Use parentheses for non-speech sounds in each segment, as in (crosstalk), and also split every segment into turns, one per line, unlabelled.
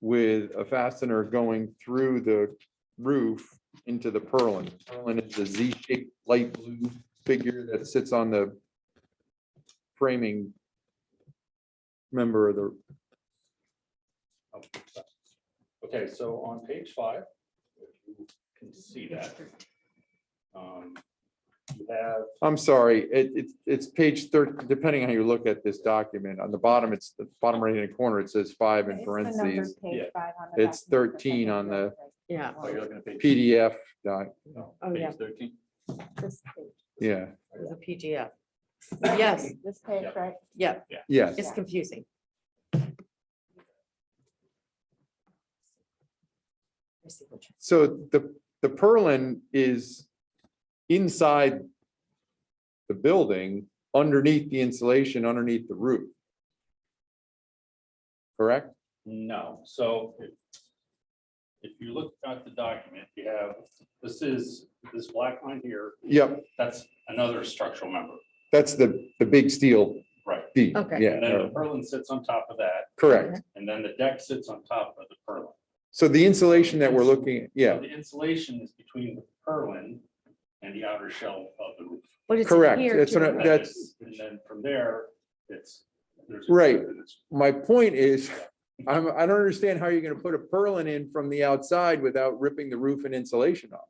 with a fastener going through the roof into the purlin. Purlin is the Z-shaped light blue figure that sits on the framing member of the,
Okay, so on page five, if you can see that. um, You have,
I'm sorry, it, it's, it's page thirty, depending on how you look at this document, on the bottom, it's the bottom right hand corner, it says five in
It's the number
parentheses.
page
Yeah.
five on the
It's
document, but
13
then
on
it's
Yeah,
oh, you're looking at page.
PDF, doc.
no,
Oh,
page
yeah.
13.
This page,
yeah,
the PGF. Yes,
This page,
Yep.
right?
yeah,
yes.
it's confusing. I see what you're-
So the, the purlin is inside the building, underneath the insulation, underneath the roof. Correct?
No, so if- if you look at the document, you have, this is, this black line here,
Yep,
that's another structural member,
that's the, the big steel.
right?
beam,
Okay.
Yeah,
And then the
or-
purlin sits on top of that,
correct.
and then the deck sits on top of the purlin.
So the insulation that we're looking, at,
So
yeah,
The insulation is between the purlin and the outer shell of the roof.
But it's
Correct,
adhered
that's
to
what I-
the
And
roof.
then-
that's-
And then from there, it's. there's a-
Right.
it's-
my point is, (laughs) I'm, I don't understand how you're gonna put a purlin in from the outside without ripping the roof and insulation off.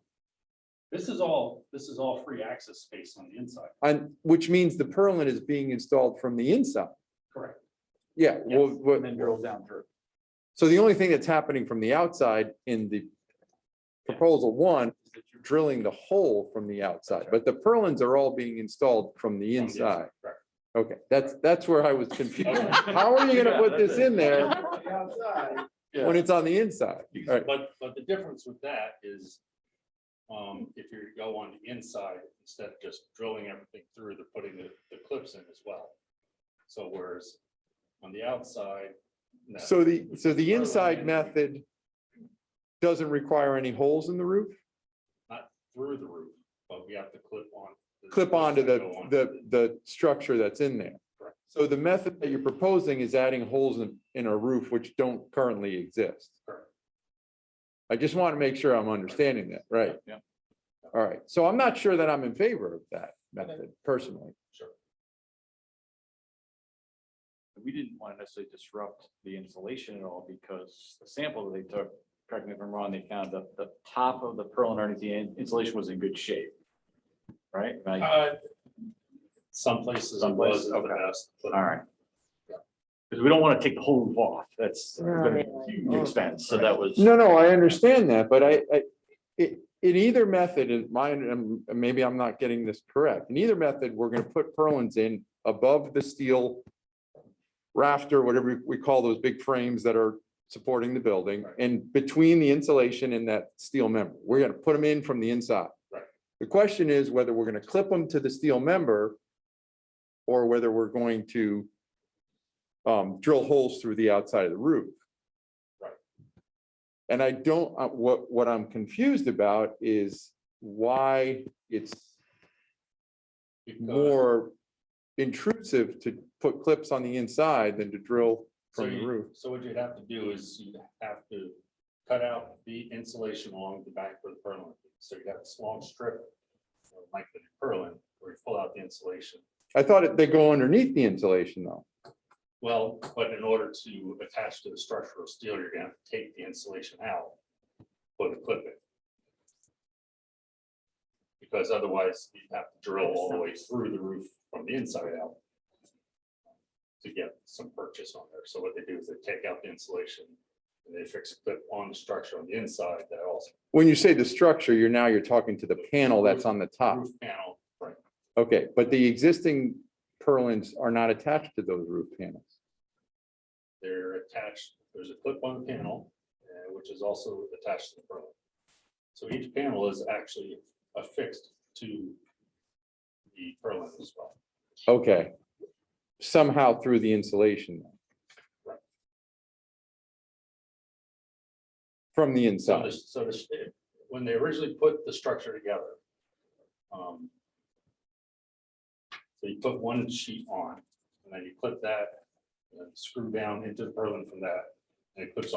This is all, this is all free access space on the inside,
And, which means the purlin is being installed from the inside.
correct?
Yeah, well, what-
down through.
So the only thing that's happening from the outside in the proposal one, is that you're drilling the hole from the outside, but the purlins are all being installed from the inside.
correct.
Okay, that's, that's where I was confused. (laughs) How are you gonna
(laughs) Yeah,
put
that's
this
it.
in there
Yeah.
when it's on the inside? All right,
But, but the difference with that is, um, if you go on the inside, instead of just drilling everything through, they're putting the, the clips in as well. So whereas on the outside. no.
So the, so the
Purlin
inside
and
method doesn't require any holes in the roof?
Through the roof, but we have to clip on. the
clip
clips
onto
that
the,
go onto
the, the structure that's in there.
Correct.
So the method that you're proposing is adding holes in, in a roof which don't currently exist.
Correct.
I just want to make sure I'm understanding that, right?
Yeah.
All right, so I'm not sure that I'm in favor of that method personally.
Sure.
we didn't want to necessarily disrupt the insulation at all because the sample that they took, correct me if I'm wrong, they found that the top of the purlin underneath the in- insulation was in good shape. Right? Like, all
Uh, Some places it
Some
was
places,
the
okay.
best. but-
right. Because we don't want to take the whole roof off. That's gonna be a huge expense. So that was.
Oh. No, no, I understand that, but I, I, it, in either method, in my, and maybe I'm not getting this correct. In either method, we're gonna put purlins in above the steel rafter, whatever we call those big frames that are supporting the building,
Right.
and between the insulation and that steel member. We're gonna put them in from the inside.
Right.
The question is whether we're gonna clip them to the steel member or whether we're going to um, drill holes through the outside of the roof. And I don't, uh, what, what I'm confused about is why it's
Because-
more intrusive to put clips on the inside than to drill
So
from the
you-
roof.
So what you'd have to do is you'd have to cut out the insulation along the back of the purlin. So you'd have this long strip uh, like the purlin where you pull out the insulation.
I thought it- they go underneath the insulation though.
Well, but in order to attach to the structural steel, you're gonna have to take the insulation out, put a clip in. Because otherwise you'd have to drill all the way through the roof from the inside out to get some purchase on there. So what they do is they take out the insulation and they fix a clip on the structure on the inside that also
When you say the structure, you're now, you're talking to the panel that's on the top.
roof panel, right?
Okay, but the existing purlins are not attached to those roof panels.
They're attached, there's a clip on the panel, uh, which is also attached to the purlin. So each panel is actually affixed to the purlin as well.
Okay. Somehow through the insulation. From the
So
inside.
this, so this, when they originally put the structure together. um, So you put one sheet on, and then you clip that, and then screw down into the purlin from that, and it clips